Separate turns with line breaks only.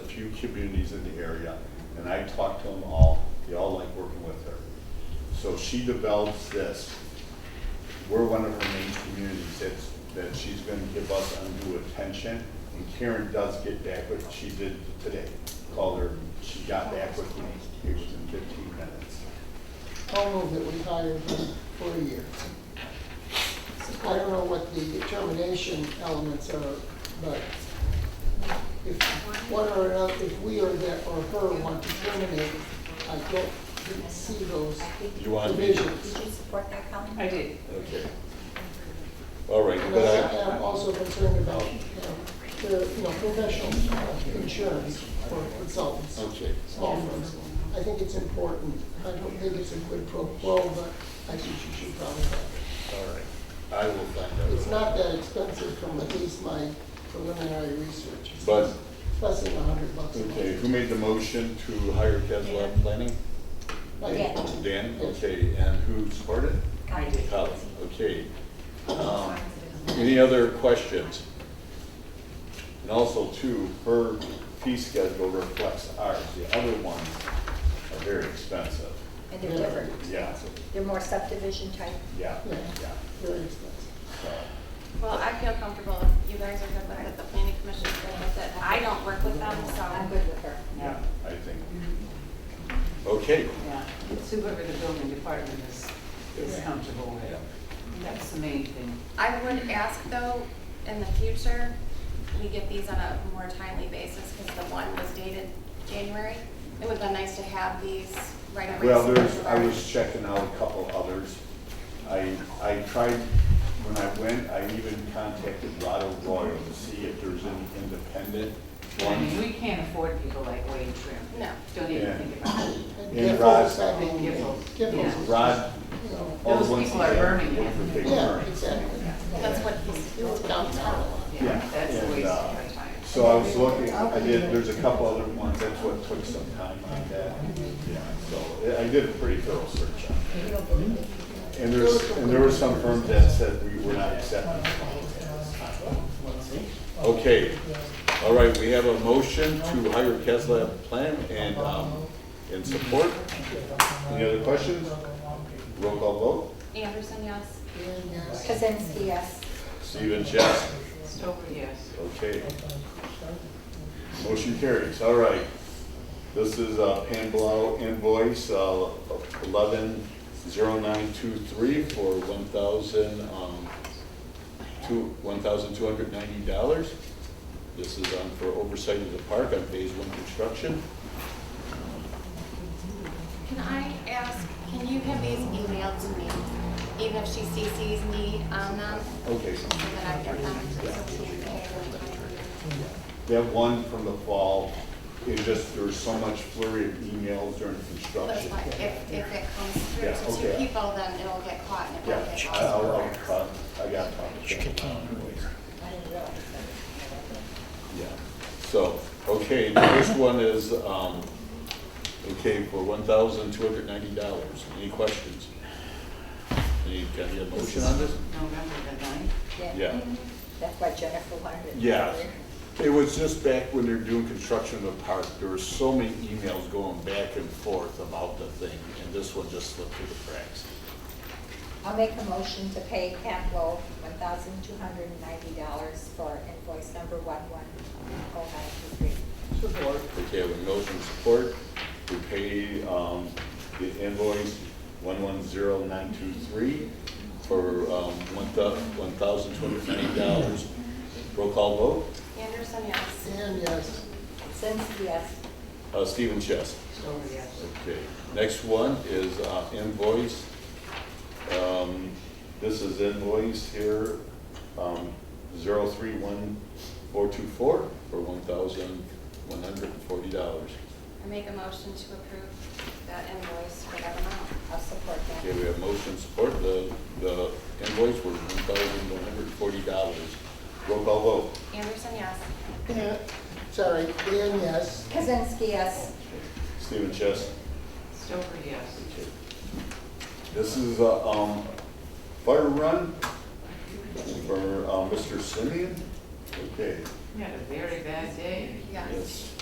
few communities in the area, and I talked to them all, they all like working with her. So she develops this, we're one of her main communities that's, that she's gonna give us undue attention. And Karen does get back, what she did today, called her, she got back with me, it was in fifteen minutes.
I'll move that we hire him for a year. I don't know what the termination elements are, but if one or another, if we or that or her want to terminate, I don't see those
You want me?
divisions.
Did you support that, Colin?
I did.
Okay. All right,
And
but
I
I,
am also concerned about, you know, the, you know, professional insurance for consultants.
okay,
small firms. I think it's important. I don't think it's a good pro quo, but I think you should probably have it.
all right. I will find out.
It's not that expensive from at least my preliminary research. It's
But-
Less than a hundred bucks. a month.
Okay, who made the motion to hire Caswell Planning?
Like,
Yeah.
Dan, okay, and who supported?
I did.
Colin, okay. Um, Any other questions? And also too, her fee schedule reflects ours, the other ones are very expensive.
And they're different.
Yeah,
They're more subdivision type.
yeah,
Yeah,
yeah.
very expensive.
So,
Well, I feel comfortable if you guys are good with it, the planning commission's good with it. I don't work with them, so.
I'm good with her.
Yeah,
I think. Okay,
yeah. It's whoever the building department is, is comfortable with. That's the main thing.
I would ask though, in the future, we get these on a more timely basis because the one was dated January. It would have been nice to have these right away.
well, there's, I was checking out a couple others. I, I tried, when I went, I even contacted Rado Royal to see if there's any independent
I mean,
ones.
we can't afford people like Wade Trim.
No.
Don't even
Yeah.
think about it.
And
And
Giffords,
Rod-
I mean,
And Giffords.
Giffords
Yeah.
is-
Rod,
you know,
all the
Those
ones.
people are
he had
burning
were
it.
for big
Yeah,
burning.
exactly.
That's what he's
It was downtown a lot.
Yeah,
Yeah, that's a
and,
waste
uh,
of our time.
So I was looking, I did, there's a couple other ones, that's what took some time on that. Yeah, so I I did a pretty thorough search on
You don't believe it?
it. And there's, and there were some firms that said we were not accepting. Okay, all right, we have a motion to hire Kesla Plan and, um, in support. Any other questions? Roll call vote.
Anderson, yes.
And, yes.
Kazinsky, yes.
Stephen Chess.
Stover, yes.
Okay. Motion carries, all right. This is uh, Pam Blau invoice uh, eleven zero nine two three for one thousand, um, two, one thousand two hundred ninety dollars. This is um, for oversight of the park on phase one construction.
Can I ask, can you have these emailed to me, even if she CCs me on them,
Okay.
so that I get them? so we can pay them time?
That one from the fall, it just, there's so much flurry of emails during
But
construction.
like, if, if it comes
Yeah,
through to two
okay.
people, then it'll get caught and it
Yeah,
won't get
I- I'll, I'll,
lost.
uh, I got to talk to Pam about it later.
I didn't realize
Yeah, so, okay, the first one is, um, okay, for one thousand two hundred ninety dollars. Any questions? Any, can I get a motion on this?
November the ninth.
that.
Yeah.
That's why Jennifer wanted it.
Yeah, it was just back when they were doing construction of the park, there were so many emails going back and forth about the thing, and this one just slipped through the cracks.
I'll make a motion to pay Campbell one thousand two hundred and ninety dollars for invoice number one one oh nine two three.
Support.
Okay, with motion and support, we pay, um, the invoice one one zero nine two three for, um, one thou, one thousand two hundred ninety dollars. Roll call vote,
Anderson, yes.
And yes,
Kazinsky, yes.
uh, Stephen Chess.
Stover, yes.
Okay, next one is, uh, invoice. Um, this is invoice here, um, zero three one four two four for one thousand one hundred and forty dollars.
I make a motion to approve that invoice for that amount.
I'll support
Okay,
that.
we have motion support, the, the invoice was one thousand one hundred and forty dollars. Roll call vote.
Anderson, yes.
and, sorry, and yes.
Kazinsky, yes.
Stephen Chess.
Stover, yes.
Okay. This is, uh, um, fire run for, uh, Mr. Simeon. Okay,
We had a very bad day.
Yes.
yes.